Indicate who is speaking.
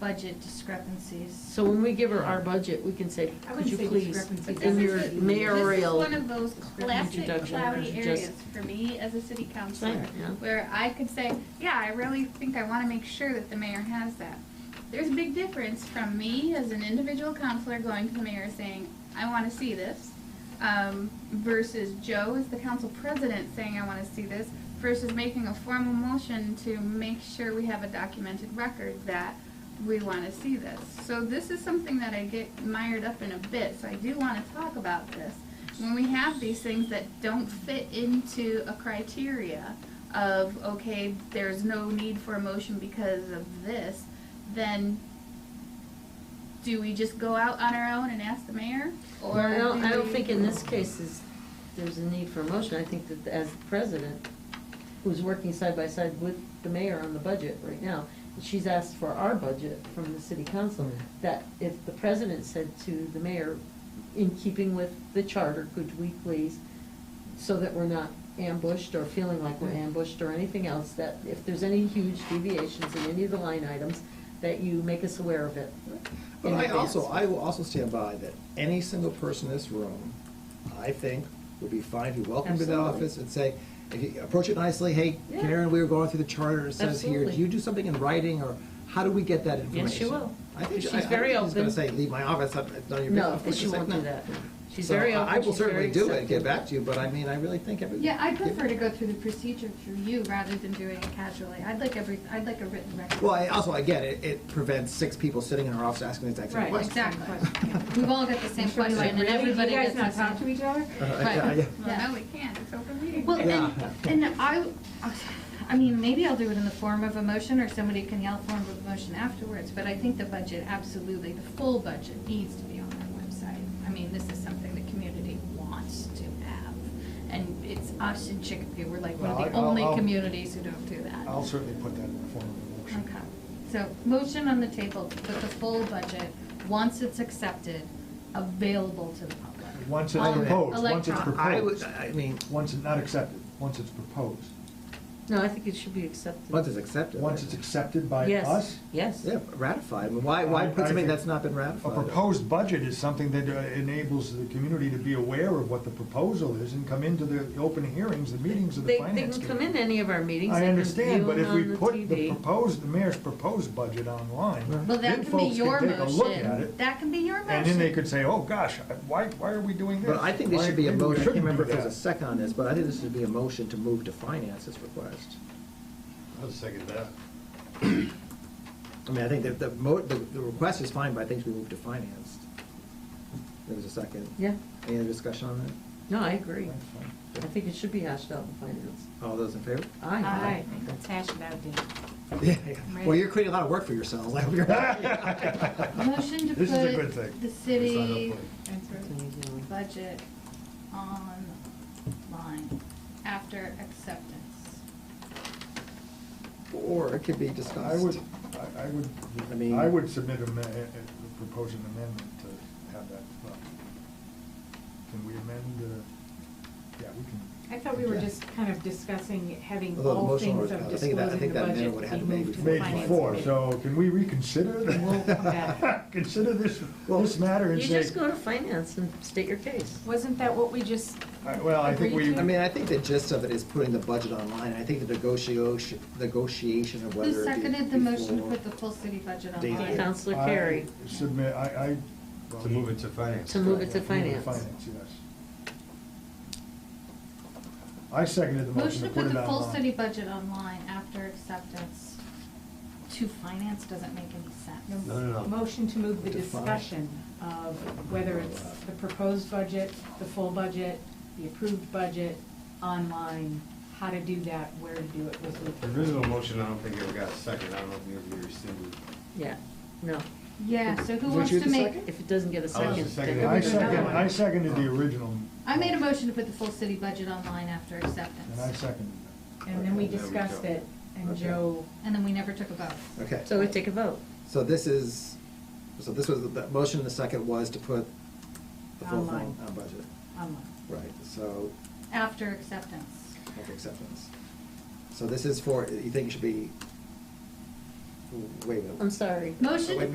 Speaker 1: budget discrepancies.
Speaker 2: So when we give her our budget, we can say,
Speaker 3: I
Speaker 2: could
Speaker 3: wouldn't
Speaker 2: you
Speaker 3: say
Speaker 2: please,
Speaker 3: discrepancies.
Speaker 2: in your
Speaker 1: This is-
Speaker 2: mayoral.
Speaker 1: This is one of those classic
Speaker 2: introduction
Speaker 1: cloudy
Speaker 2: is
Speaker 1: areas
Speaker 2: just-
Speaker 1: for me as a city councilor,
Speaker 2: Right, yeah.
Speaker 1: where I could say, yeah, I really think I want to make sure that the mayor has that. There's a big difference from me as an individual counselor going to the mayor saying, I want to see this, um, versus Joe as the council president saying, I want to see this, versus making a formal motion to make sure we have a documented record that we want to see this. So this is something that I get mired up in a bit, so I do want to talk about this. When we have these things that don't fit into a criteria of, okay, there's no need for a motion because of this, then do we just go out on our own and ask the mayor? Or
Speaker 2: Well, I don't,
Speaker 1: do
Speaker 2: I don't
Speaker 1: we-
Speaker 2: think in this case is, there's a need for a motion, I think that as the president, who's working side by side with the mayor on the budget right now, she's asked for our budget from the city council, that if the president said to the mayor, in keeping with the charter, could we please, so that we're not ambushed or feeling like we're ambushed or anything else, that if there's any huge deviations in any of the line items, that you make us aware of it.
Speaker 4: But
Speaker 2: in
Speaker 4: I
Speaker 2: advance.
Speaker 4: also, I will also stand by that any single person in this room, I think, would be fine to be welcome to the
Speaker 2: Absolutely.
Speaker 4: office and say, if you approach it nicely, hey,
Speaker 2: Yeah.
Speaker 4: Karen, we were going through the charter, it says here, do
Speaker 2: Absolutely.
Speaker 4: you do something in writing, or how do we get that information?
Speaker 2: Yes, she will.
Speaker 4: I think,
Speaker 2: She's
Speaker 4: I- I don't
Speaker 2: very
Speaker 4: think she's gonna
Speaker 2: open.
Speaker 4: say, leave my office, I'm- it's none of your
Speaker 2: No,
Speaker 4: business.
Speaker 2: but she
Speaker 4: It's like,
Speaker 2: won't do
Speaker 4: no.
Speaker 2: that. She's
Speaker 4: So
Speaker 2: very
Speaker 4: I-
Speaker 2: open.
Speaker 4: I will
Speaker 2: she's very
Speaker 4: certainly do it, and get
Speaker 2: accepting.
Speaker 4: back to you, but I mean, I really think every.
Speaker 3: Yeah, I prefer to go through the procedure through you rather than doing it casually. I'd like every, I'd like a written record.
Speaker 4: Well, I also, again, it, it prevents six people sitting in our office asking the exact same
Speaker 2: Right.
Speaker 4: question.
Speaker 3: Exactly. We've all got the same
Speaker 2: Sure,
Speaker 3: question
Speaker 2: like,
Speaker 3: and
Speaker 2: really? Do you
Speaker 3: everybody
Speaker 5: guys
Speaker 3: gets
Speaker 5: not
Speaker 3: the same.
Speaker 5: talk to each other?
Speaker 4: uh, Yeah, yeah.
Speaker 1: Well, no, we can't, it's open meeting.
Speaker 3: Well,
Speaker 4: Yeah.
Speaker 3: and, and I, I mean, maybe I'll do it in the form of a motion, or somebody can yell form of a motion afterwards, but I think the budget, absolutely, the full budget needs to be on that website. I mean, this is something the community wants to have, and it's us in Chicopee, we're like one
Speaker 6: Well,
Speaker 3: of the
Speaker 6: I'll-
Speaker 3: only
Speaker 6: I'll-
Speaker 3: communities who don't do that.
Speaker 6: I'll certainly put that in the form of a motion.
Speaker 3: Okay, so motion on the table, put the full budget, once it's accepted, available to the public.
Speaker 6: Once it's
Speaker 3: On
Speaker 6: proposed, once it's
Speaker 3: electronic.
Speaker 6: proposed.
Speaker 4: I would, I mean,
Speaker 6: Once it's not accepted, once it's proposed,
Speaker 2: No, I think it should be accepted.
Speaker 4: once it's accepted.
Speaker 6: once
Speaker 4: right?
Speaker 6: it's accepted by
Speaker 2: Yes,
Speaker 6: us.
Speaker 2: Yes.
Speaker 4: Yeah, ratified. I mean, why, why
Speaker 6: I-
Speaker 4: put
Speaker 6: I
Speaker 4: something
Speaker 6: think
Speaker 4: that's not been
Speaker 6: A
Speaker 4: ratified?
Speaker 6: proposed budget is something that uh, enables the community to be aware of what the proposal is and come into the open hearings, the meetings of the
Speaker 2: They, they
Speaker 6: finance
Speaker 2: can
Speaker 6: committee.
Speaker 2: come in any of our meetings.
Speaker 6: I
Speaker 2: they can
Speaker 6: understand,
Speaker 2: view
Speaker 6: but
Speaker 2: them
Speaker 6: if we
Speaker 2: on
Speaker 6: put the
Speaker 2: TV.
Speaker 6: proposed, the mayor's proposed budget online,
Speaker 3: Well,
Speaker 6: then
Speaker 3: that can be
Speaker 6: folks
Speaker 3: your
Speaker 6: can take a look at
Speaker 3: motion.
Speaker 6: it.
Speaker 3: That can be your motion.
Speaker 6: And then they could say, oh, gosh, I- why, why are we doing this?
Speaker 4: But I think there
Speaker 6: Why-
Speaker 4: should be a
Speaker 6: maybe we
Speaker 4: motion, I can't
Speaker 6: shouldn't
Speaker 4: remember if
Speaker 6: do
Speaker 4: there's a
Speaker 6: that."
Speaker 4: second on this, but I think this should be a motion to move to finance this request.
Speaker 6: I'll second that.
Speaker 4: I mean, I think that the mo, the, the request is fine, but I think we move to finance. There's a second.
Speaker 2: Yeah,
Speaker 4: Any other discussion on that?
Speaker 2: no, I agree.
Speaker 6: That's fine.
Speaker 2: I think it should be hashed out in finance.
Speaker 4: All those in favor?
Speaker 2: Aye.
Speaker 5: Aye. Let's hash it out, Dan.
Speaker 4: Yeah, yeah. Well, you're creating a lot of work for yourselves. I hope you're-
Speaker 3: Motion to
Speaker 6: This is a good thing.
Speaker 3: put the city
Speaker 1: That's right.
Speaker 3: budget online after acceptance.
Speaker 4: Or it could be
Speaker 6: I would,
Speaker 4: discussed.
Speaker 6: I- I
Speaker 4: I mean-
Speaker 6: would, I would submit a, ma- a- a- propose an amendment to have that. uh, Can we amend, uh, yeah, we can.
Speaker 5: I thought we were
Speaker 4: Yeah.
Speaker 5: just kind of discussing having
Speaker 4: Although the
Speaker 5: all
Speaker 4: motion
Speaker 5: things
Speaker 4: was-
Speaker 5: of
Speaker 4: I think that-
Speaker 5: disclosing
Speaker 4: I think
Speaker 5: the
Speaker 4: that
Speaker 5: budget
Speaker 4: amendment would've
Speaker 5: be
Speaker 4: had to maybe
Speaker 5: moved to the
Speaker 6: Made
Speaker 5: finance
Speaker 6: before,
Speaker 5: committee.
Speaker 6: so can we reconsider? that?
Speaker 5: We'll come back.
Speaker 6: Consider this,
Speaker 4: Well,
Speaker 6: this matter
Speaker 2: You
Speaker 6: and say,
Speaker 2: just go to finance and state your case.
Speaker 5: Wasn't that what we just,
Speaker 6: I- Uh, well, I think
Speaker 5: Agreed
Speaker 6: we.
Speaker 5: to?
Speaker 4: I mean, I think the gist of it is putting the budget online. I think the negotiation, negotiation of whether it
Speaker 3: Who
Speaker 4: be
Speaker 3: seconded the motion to
Speaker 4: before-
Speaker 3: put the full city budget
Speaker 4: Dana.
Speaker 3: online?
Speaker 2: Counselor
Speaker 6: I
Speaker 2: Carey,
Speaker 6: Submit, I, I.
Speaker 7: To move it to finance.
Speaker 2: to move it to finance.
Speaker 6: Finance, yes. I seconded the motion to put it
Speaker 3: Motion to put the full
Speaker 6: online.
Speaker 3: city budget online after acceptance to finance doesn't make any sense.
Speaker 7: No, no, no.
Speaker 5: motion to move the
Speaker 4: Define.
Speaker 5: discussion of whether it's the proposed budget, the full budget, the approved budget, online, how to do that, where to do it, was
Speaker 7: The
Speaker 5: the.
Speaker 7: original motion, I don't think ever got a second. I don't know if you ever rescinded.
Speaker 2: yeah, no,
Speaker 3: Yeah, so who
Speaker 4: Weren't
Speaker 3: wants
Speaker 4: you
Speaker 3: to
Speaker 4: the
Speaker 3: make,
Speaker 4: second?
Speaker 2: if it doesn't get a
Speaker 7: I was
Speaker 2: second.
Speaker 7: the second.
Speaker 2: then
Speaker 6: I
Speaker 2: everybody-
Speaker 6: second, I seconded the original.
Speaker 3: I made a motion to put the full city budget online after
Speaker 6: And I
Speaker 3: acceptance,
Speaker 6: seconded
Speaker 5: And then we
Speaker 7: There we
Speaker 5: discussed
Speaker 7: go.
Speaker 5: it, and
Speaker 4: Okay.
Speaker 5: Joe,
Speaker 3: and then we never took a vote.
Speaker 4: Okay.
Speaker 2: So we take a vote.
Speaker 4: So this is, so this was, the motion the second was to put the full thing
Speaker 5: Online.
Speaker 4: on budget.
Speaker 5: online.
Speaker 4: Right, so,
Speaker 3: After acceptance.
Speaker 4: of acceptance. So this is for, you think it should be
Speaker 8: Wait a minute.
Speaker 9: I'm sorry.
Speaker 4: Motion to